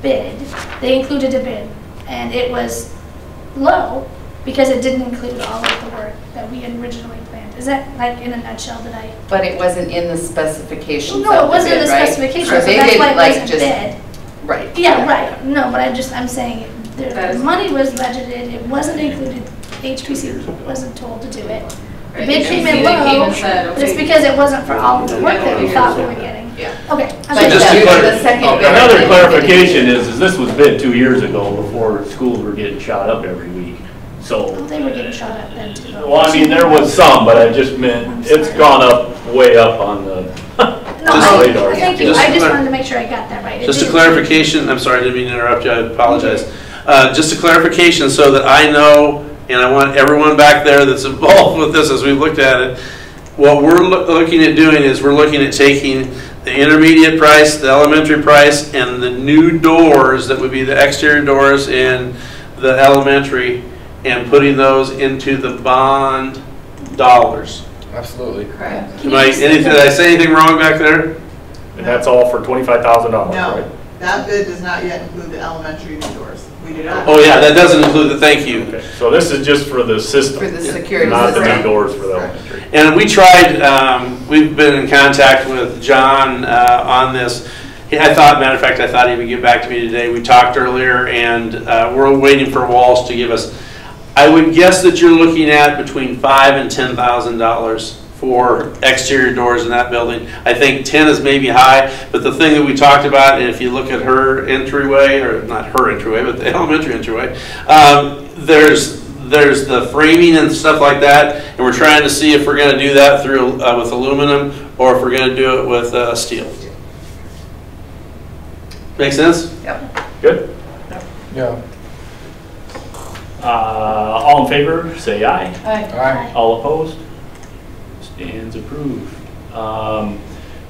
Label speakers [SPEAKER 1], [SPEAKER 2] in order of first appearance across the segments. [SPEAKER 1] bid, they included a bid, and it was low because it didn't include all of the work that we had originally planned. Is that like in a nutshell that I?
[SPEAKER 2] But it wasn't in the specifications
[SPEAKER 1] No, it
[SPEAKER 2] of the
[SPEAKER 1] wasn't in the
[SPEAKER 2] bid, right?
[SPEAKER 1] specifications,
[SPEAKER 2] So
[SPEAKER 1] so
[SPEAKER 2] they
[SPEAKER 1] that's why it
[SPEAKER 2] didn't like
[SPEAKER 1] wasn't
[SPEAKER 2] just
[SPEAKER 1] bid.
[SPEAKER 2] Right.
[SPEAKER 1] Yeah, right, no, but I just, I'm saying,
[SPEAKER 2] That
[SPEAKER 1] the
[SPEAKER 2] is-
[SPEAKER 1] money was budgeted, it wasn't included, HPC wasn't told to do it. The bid came in
[SPEAKER 3] They came
[SPEAKER 1] low,
[SPEAKER 3] and said,
[SPEAKER 1] but it's
[SPEAKER 3] okay.
[SPEAKER 1] because it wasn't for all of the work that we
[SPEAKER 3] Yeah.
[SPEAKER 1] thought we were getting.
[SPEAKER 2] Yeah.
[SPEAKER 1] Okay. I'm
[SPEAKER 2] But
[SPEAKER 1] sorry.
[SPEAKER 2] just
[SPEAKER 4] to
[SPEAKER 2] you-
[SPEAKER 4] clar-
[SPEAKER 2] the second
[SPEAKER 4] oh,
[SPEAKER 2] bidder
[SPEAKER 4] Another
[SPEAKER 2] didn't-
[SPEAKER 4] clarification is, is this was bid two years ago before schools were getting shot up every week, so.
[SPEAKER 1] Well, They were getting shot at then too. though.
[SPEAKER 4] Well, I mean, there was some, but I just meant, it's gone up, way up on the
[SPEAKER 1] No,
[SPEAKER 5] Just-
[SPEAKER 1] I,
[SPEAKER 4] radar.
[SPEAKER 1] thank you,
[SPEAKER 5] Just
[SPEAKER 1] I just
[SPEAKER 5] clar-
[SPEAKER 1] wanted to make sure I got that right. It
[SPEAKER 5] Just a
[SPEAKER 1] didn't-
[SPEAKER 5] clarification, I'm sorry, I didn't mean to interrupt you, I apologize. Uh, Just a clarification so that I know, and I want everyone back there that's involved with this as we've looked at it, what we're loo- looking at doing is we're looking at taking the intermediate price, the elementary price, and the new doors that would be the exterior doors in the elementary and putting those into the bond dollars.
[SPEAKER 6] Absolutely.
[SPEAKER 3] Correct.
[SPEAKER 1] Can
[SPEAKER 5] Am
[SPEAKER 1] you
[SPEAKER 5] I,
[SPEAKER 1] just-
[SPEAKER 5] anything, did I say anything wrong back there?
[SPEAKER 4] And that's all for twenty-five thousand dollars,
[SPEAKER 7] No,
[SPEAKER 4] right?
[SPEAKER 7] that bid does not yet include the elementary new doors. We do not.
[SPEAKER 5] Oh, yeah, that doesn't include the thank you.
[SPEAKER 4] Okay, So this is just for the
[SPEAKER 2] For the
[SPEAKER 4] system,
[SPEAKER 2] security
[SPEAKER 4] not the new
[SPEAKER 2] system.
[SPEAKER 4] doors for the elementary.
[SPEAKER 5] And we tried, um, we've been in contact with John uh, on this. He- I thought, matter of fact, I thought he would get back to me today. We talked earlier, and uh, we're waiting for Walsh to give us. I would guess that you're looking at between five and ten thousand dollars for exterior doors in that building. I think ten is maybe high, but the thing that we talked about, and if you look at her entryway, or not her entryway, but the elementary entryway, um, there's, there's the framing and stuff like that, and we're trying to see if we're gonna do that through, uh, with aluminum, or if we're gonna do it with, uh, steel. Make sense?
[SPEAKER 4] Good?
[SPEAKER 6] Yeah.
[SPEAKER 4] Uh, all in favor, say aye.
[SPEAKER 6] All right.
[SPEAKER 4] All opposed? Stands approved. Um,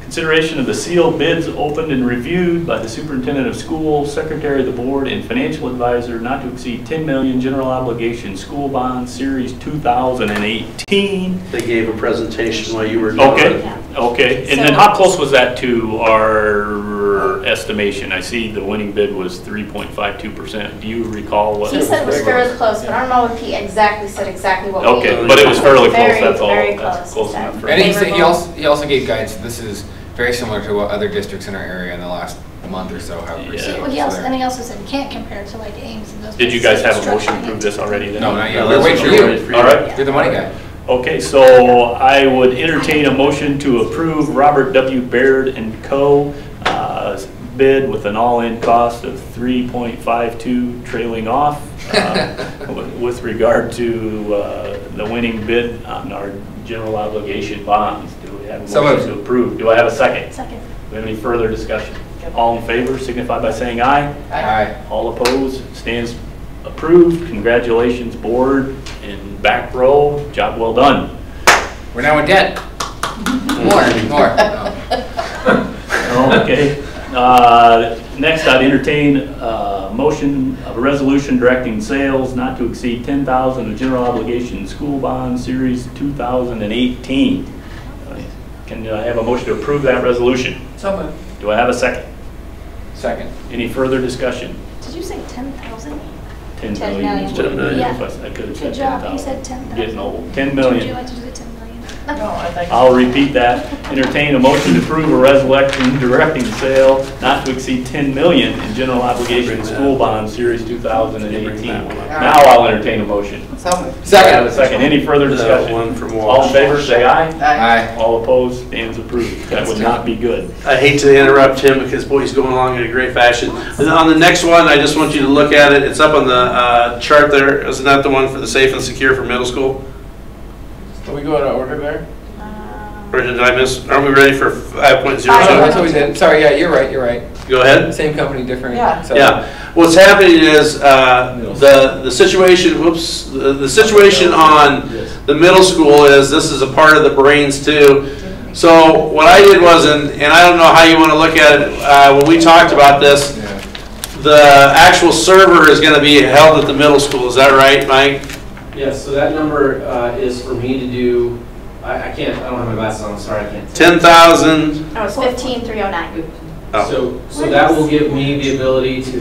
[SPEAKER 4] Consideration of the sealed bids opened and reviewed by the superintendent of school, secretary of the board, and financial advisor not to exceed 10 million general obligation school bond series 2018.
[SPEAKER 5] They gave a presentation while you were gone.
[SPEAKER 4] Okay, okay. And then how close was that to our estimation? I see the winning bid was 3.52%. Do you recall what?
[SPEAKER 3] He said it was fairly close, but I don't know if he exactly said exactly what we.
[SPEAKER 4] Okay, but it was fairly close,
[SPEAKER 3] Very,
[SPEAKER 4] that's all.
[SPEAKER 3] very
[SPEAKER 4] That's
[SPEAKER 3] close,
[SPEAKER 4] close
[SPEAKER 3] exactly.
[SPEAKER 4] enough for-
[SPEAKER 6] And he said, he
[SPEAKER 3] Favorable.
[SPEAKER 6] also, he also gave guidance, this is very similar to what other districts in our area in the last month or so have
[SPEAKER 4] Yeah.
[SPEAKER 6] received.
[SPEAKER 1] Well, he also,
[SPEAKER 6] So
[SPEAKER 1] and he also said you can't compare it to like Ames and those.
[SPEAKER 4] Did you guys
[SPEAKER 1] places.
[SPEAKER 4] have a motion to approve this already then?
[SPEAKER 6] No, not yet.
[SPEAKER 5] Yeah,
[SPEAKER 6] We're
[SPEAKER 5] that's
[SPEAKER 6] waiting
[SPEAKER 5] what
[SPEAKER 6] for
[SPEAKER 5] we're
[SPEAKER 6] you.
[SPEAKER 5] waiting
[SPEAKER 4] All right.
[SPEAKER 6] You're the money guy.
[SPEAKER 4] Okay, so I would entertain a motion to approve Robert W. Baird and Co. uh, bid with an all-in cost of 3.52 trailing off uh, with- with regard to uh, the winning bid on our general obligation bonds. Do we have a
[SPEAKER 6] So
[SPEAKER 4] motion
[SPEAKER 6] moved.
[SPEAKER 4] to approve? Do I have a second?
[SPEAKER 1] Second.
[SPEAKER 4] Do we have any further discussion? All in favor signify by saying aye.
[SPEAKER 6] Aye.
[SPEAKER 4] All opposed, stands approved. Congratulations, board and back row, job well done.
[SPEAKER 6] We're now in debt.
[SPEAKER 2] More.
[SPEAKER 6] More. No.
[SPEAKER 4] Okay. Uh, Next, I'd entertain a motion of a resolution directing sales not to exceed 10,000 of general obligation school bond series 2018. Uh, Can I have a motion to approve that resolution?
[SPEAKER 2] So
[SPEAKER 4] Do I have a second?
[SPEAKER 6] Second.
[SPEAKER 4] Any further discussion?
[SPEAKER 1] Did you say ten thousand?
[SPEAKER 4] 10
[SPEAKER 3] Ten
[SPEAKER 4] million is what
[SPEAKER 5] million.
[SPEAKER 4] it is.
[SPEAKER 1] Yeah.
[SPEAKER 4] I could have said
[SPEAKER 1] Good job, he
[SPEAKER 4] 10,000.
[SPEAKER 1] said ten thousand.
[SPEAKER 4] Getting old. 10
[SPEAKER 1] Would you
[SPEAKER 4] million.
[SPEAKER 1] like to do the ten million?
[SPEAKER 4] I'll repeat that. Entertain a motion to approve a resolution directing sale not to exceed 10 million in general obligation school bond series 2018. Now I'll entertain a motion.
[SPEAKER 2] So moved.
[SPEAKER 4] Do I have a
[SPEAKER 6] Second.
[SPEAKER 4] Second, any further
[SPEAKER 5] The
[SPEAKER 4] discussion?
[SPEAKER 5] Uh, one from
[SPEAKER 4] All in
[SPEAKER 5] Walsh.
[SPEAKER 4] favor, say aye.
[SPEAKER 6] Aye.
[SPEAKER 4] All opposed, stands approved. That would not be good.
[SPEAKER 5] I hate to interrupt him because boy, he's going along in a great fashion. And on the next one, I just want you to look at it. It's up on the uh, chart there. Isn't that the one for the safe and secure for middle school?
[SPEAKER 6] Can we go out of order there?
[SPEAKER 5] Or did I miss? Aren't we ready for 5.02?
[SPEAKER 6] Oh, that's what we did. Sorry, yeah, you're right, you're right.
[SPEAKER 5] Go ahead.
[SPEAKER 6] Same company, different.
[SPEAKER 7] Yeah.
[SPEAKER 6] so-
[SPEAKER 5] Yeah, what's happening is, uh, the, the situation, whoops, the the situation on the middle school is, this is a part of the brains too. So what I did was, and, and I don't know how you wanna look at it, uh, when we talked about this,
[SPEAKER 6] Yeah.
[SPEAKER 5] the actual server is gonna be held at the middle school, is that right, Mike?
[SPEAKER 8] Yes, so that number uh, is for me to do, I I can't, I don't have my glasses on, sorry, I can't.
[SPEAKER 5] Ten thousand,
[SPEAKER 3] No, it's fifteen, three oh nine.
[SPEAKER 5] Oh.
[SPEAKER 8] So, so that will give me the ability to